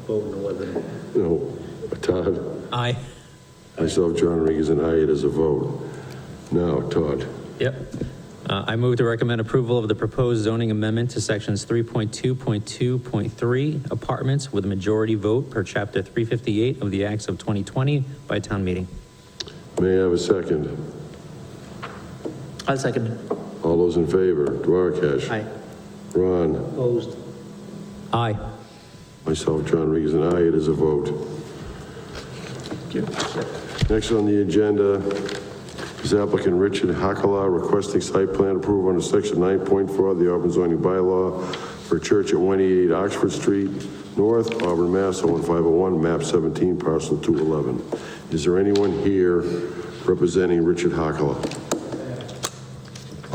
vote in order. No, Todd, Aye. myself, John Regan, and I, it is a vote. Now, Todd, Yep. Uh, I move to recommend approval of the proposed zoning amendment to sections 3.2.2.3 apartments with a majority vote per chapter 358 of the Acts of 2020 by town meeting. may I have a second? I'll second. All those in favor, Duarkesh? Aye. Ron, Opposed. Aye. myself, John Regan, and I, it is a vote. Next on the agenda is applicant Richard Hakala requesting site plan approval under section 9.4 of the Auburn zoning bylaw for a church at 188 Oxford Street North, Auburn, Mass. 01501, map 17, parcel 211. Is there anyone here representing Richard Hakala?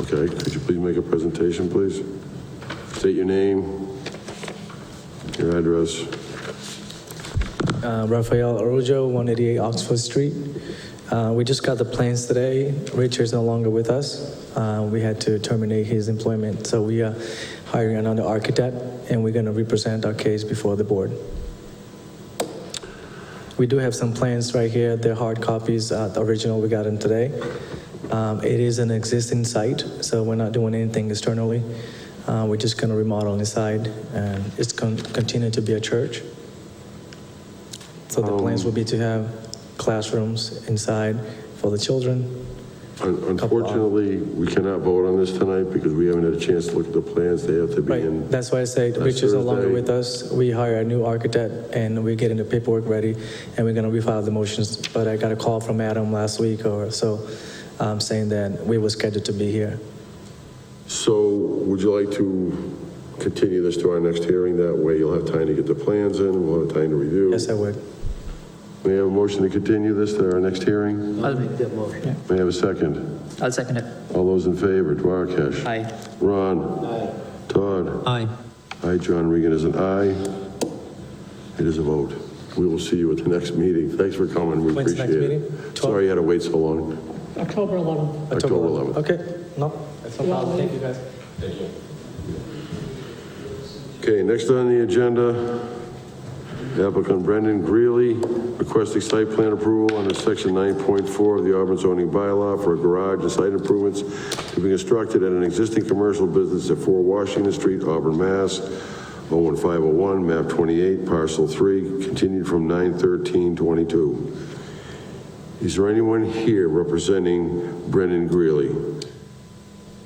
Okay, could you please make a presentation, please? State your name, your address. Uh, Rafael Arujo, 188 Oxford Street. Uh, We just got the plans today. Richard's no longer with us. Uh, We had to terminate his employment, so we are hiring another architect, and we're going to represent our case before the board. We do have some plans right here. They're hard copies, uh, the original, we got them today. Um, It is an existing site, so we're not doing anything externally. Uh, We're just going to remodel inside, and it's going to continue to be a church. So the plans will be to have classrooms inside for the children. Un- Unfortunately, we cannot vote on this tonight because we haven't had a chance to look at the plans. They have to be Right, in. that's why I said Last Rich is no longer Thursday. with us. We hire a new architect and we're getting the paperwork ready and we're gonna refile the motions. But I got a call from Adam last week or so, um, saying that we were scheduled to be here. So would you like to continue this to our next hearing? That way you'll have time to get the plans in, we'll have time to review. Yes, I would. May I have a motion to continue this to our next hearing? I'll make that motion. May I have a second? I'll second it. All those in favor, Duarkesh? Aye. Ron? Todd? Aye. Aye, John Regan is an aye. It is a vote. We will see you at the next meeting. Thanks for coming, we When's appreciate the it. next meeting? Twelve? Sorry you had to wait so long. October 11th. October 11th. Okay, no, that's no problem. Thank you, guys. Okay, next on the agenda, applicant Brendan Greeley requesting site plan approval under section 9.4 of the Auburn zoning bylaw for a garage and site improvements to be constructed at an existing commercial business at 4 Washington Street, Auburn, Mass. 01501, map 28, parcel 3, continued from 9/13/22. Is there anyone here representing Brendan Greeley?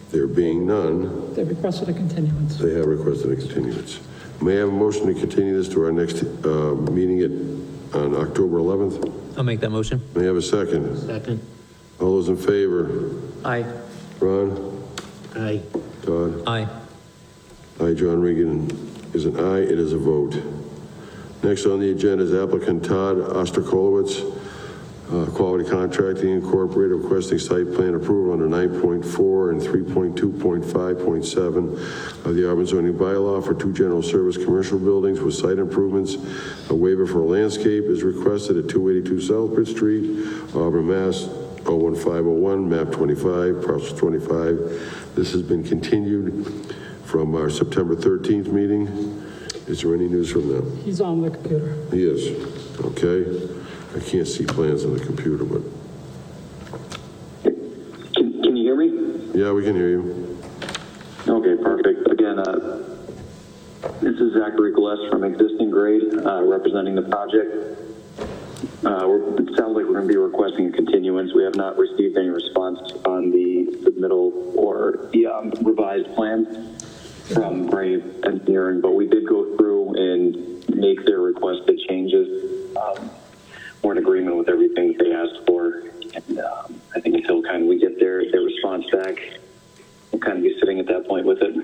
There being none, They requested a continuance. they have requested a continuance. May I have a motion to continue this to our next uh, meeting at, on October 11th? I'll make that motion. May I have a second? Second. All those in favor? Aye. Ron? Aye. Todd? Aye. Aye, John Regan is an aye, it is a vote. Next on the agenda is applicant Todd Osterkolowitz, uh, Quality Contracting Incorporated, requesting site plan approval under 9.4 and 3.2.5.7 of the Auburn zoning bylaw for two general service commercial buildings with site improvements. A waiver for landscape is requested at 282 Southbridge Street, Auburn, Mass. 01501, map 25, parcel 25. This has been continued from our September 13th meeting. Is there any news from them? He's on the computer. He is, okay? I can't see plans on the computer, but, Can, can you hear me? yeah, we can hear you. Okay, perfect. Again, uh, this is Zachary Gillespie from Existing Grade, uh, representing the project. Uh, we're- it sounds like we're going to be requesting a continuance. We have not received any response on the submittal or the um, revised plan from um, Brave Engineering, but we did go through and make their requested changes. Um, we're in agreement with everything they asked for, and um, I think until kind of we get their their response back, we'll kind of be sitting at that point with it.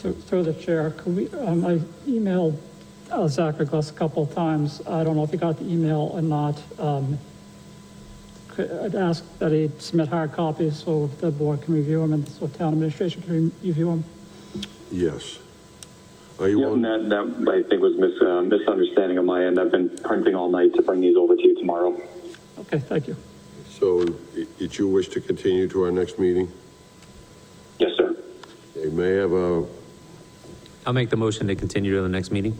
Through through the chair, could we, um, I emailed uh, Zachary Glass a couple of times. I don't know if he got the email or not. Um, could- I'd ask that he submit hard copies so the board can review them and so town administration can review them. Yes. Are you Yeah, and on? that, that I think was mis- uh, misunderstanding on my end. I've been printing all night to bring these over to you tomorrow. Okay, thank you. So i- it's your wish to continue to our next meeting? Yes, sir. They may have uh, a, I'll make the motion to continue to the next meeting.